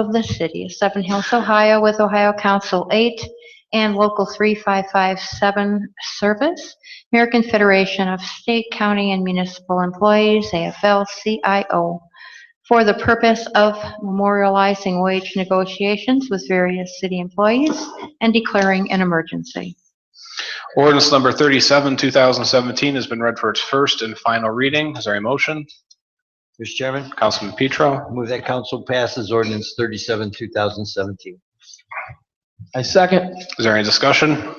of the City of Seven Hills, Ohio, with Ohio Council 8 and Local 3557 Service, American Federation of State, County, and Municipal Employees, AFL-CIO, for the purpose of memorializing wage negotiations with various city employees and declaring an emergency. Ordinance number 37, 2017 has been read for its first and final reading. Is there a motion? Mr. Chairman, Councilman Petro, move that council passes ordinance 37, 2017. I second. is there any discussion?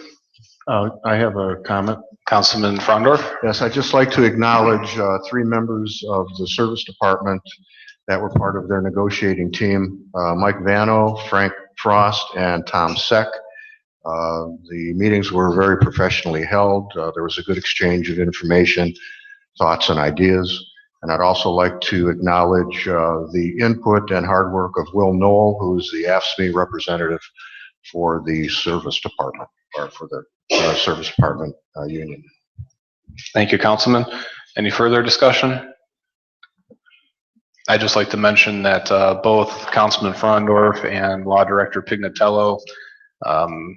Uh, I have a comment. Councilman Frondorf, Yes, I'd just like to acknowledge uh, three members of the Service Department that were part of their negotiating team, uh, Mike Vano, Frank Frost, and Tom Seck. Uh, The meetings were very professionally held. Uh, There was a good exchange of information, thoughts, and ideas. And I'd also like to acknowledge uh, the input and hard work of Will Knoll, who's the AFSMI representative for the Service Department, or for the uh, Service Department uh, Union. thank you, Councilman. Any further discussion? I'd just like to mention that uh, both Councilman Frondorf and Law Director Pignatello um,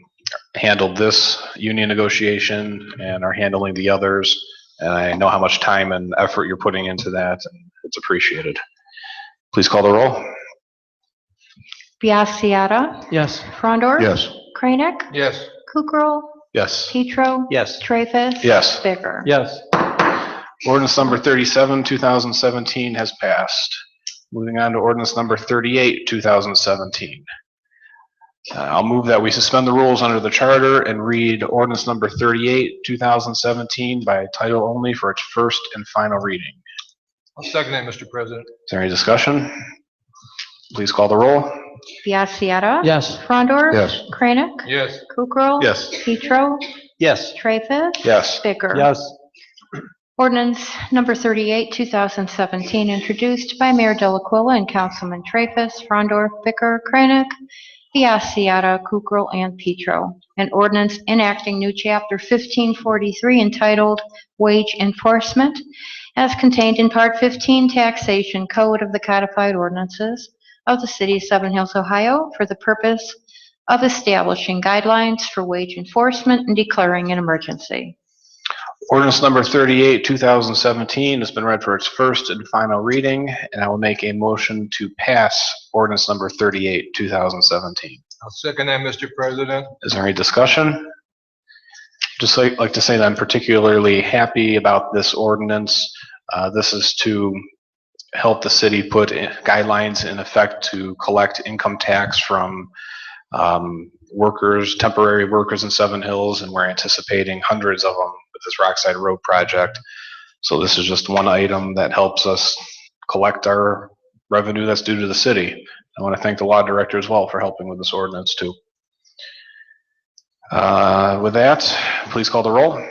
handled this union negotiation and are handling the others. And I know how much time and effort you're putting into that, and it's appreciated. Please call the roll. Biassiata. Yes. Frondor. Yes. Kranek. Yes. Kukrow. Yes. Petro. Yes. Traffus. Yes. Bicker. Yes. Ordinance number 37, 2017 has passed. Moving on to ordinance number 38, 2017. Uh, I'll move that we suspend the rules under the charter and read ordinance number 38, 2017 by title only for its first and final reading. I'll second that, Mr. President. Is there any discussion? Please call the roll. Biassiata. Yes. Frondor. Yes. Kranek. Yes, Kukrow. Yes. Petro. Yes. Traffus. Yes. Bicker. Yes. Ordinance number 38, 2017, introduced by Mayor Delacuilla and Councilman Traffus, Frondor, Bicker, Kranek, Biassiata, Kukrow, and Petro. An ordinance enacting new chapter 1543 entitled Wage Enforcement as contained in Part 15 Taxation Code of the Codified Ordinances of the City of Seven Hills, Ohio, for the purpose of establishing guidelines for wage enforcement and declaring an emergency. Ordinance number 38, 2017 has been read for its first and final reading, and I will make a motion to pass ordinance number 38, 2017. I'll second that, Mr. President. Is there any discussion? Just like, like to say that I'm particularly happy about this ordinance. Uh, this is to help the city put in- guidelines in effect to collect income tax from, um, workers, temporary workers in Seven Hills, and we're anticipating hundreds of them with this Rockside Road project. So this is just one item that helps us collect our revenue that's due to the city. I want to thank the law director as well for helping with this ordinance too. Uh, With that, please call the roll.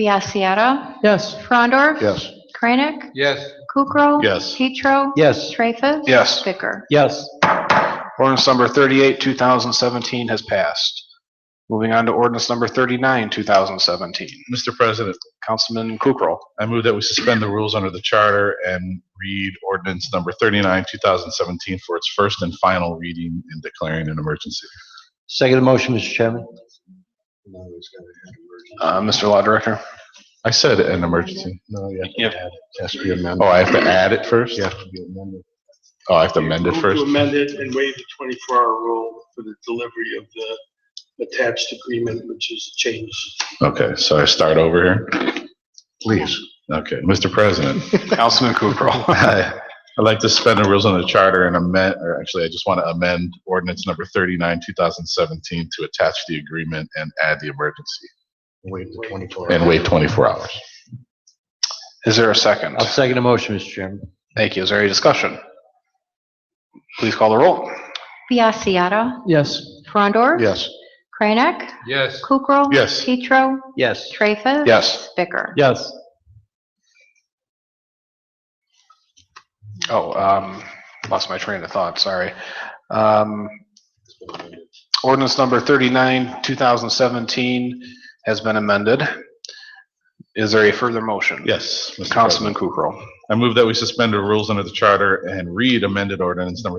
Biassiata. Yes. Frondor. Yes. Kranek. Yes, Kukrow. Yes. Petro. Yes. Traffus. Yes. Bicker. Yes. Ordinance number 38, 2017 has passed. Moving on to ordinance number 39, 2017. Mr. President, Councilman Kukrow. I move that we suspend the rules under the charter and read ordinance number 39, 2017 for its first and final reading and declaring an emergency. Second motion, Mr. Chairman. Uh, Mr. Law Director. I said an emergency. No, yeah. Yep. Has to be Oh, amended. I have to add it first? You have to be amended. Oh, I have to amend it Move first? To amend it and waive the 24-hour rule for the delivery of the attached agreement, which is changed. Okay, so I start over here? Please. Okay, Mr. President, Councilman Kukrow. I'd like to suspend the rules on the charter and amend, or actually, I just want to amend ordinance number 39, 2017 to attach the agreement and add the emergency Wait the 24. and wait 24 hours. Is there a second? I'll second the motion, Mr. Chairman. Thank you. Is there any discussion? Please call the roll. Biassiata. Yes. Frondor. Yes. Kranek. yes, Kukrow. Yes. Petro. Yes. Traffus. Yes. Bicker. Yes. Oh, um, lost my train of thought, sorry. Um, ordinance number thirty-nine, two thousand seventeen has been amended. Is there a further motion? Yes. Mr. President. Councilman Kukrow. I move that we suspend the rules under the charter and read amended ordinance number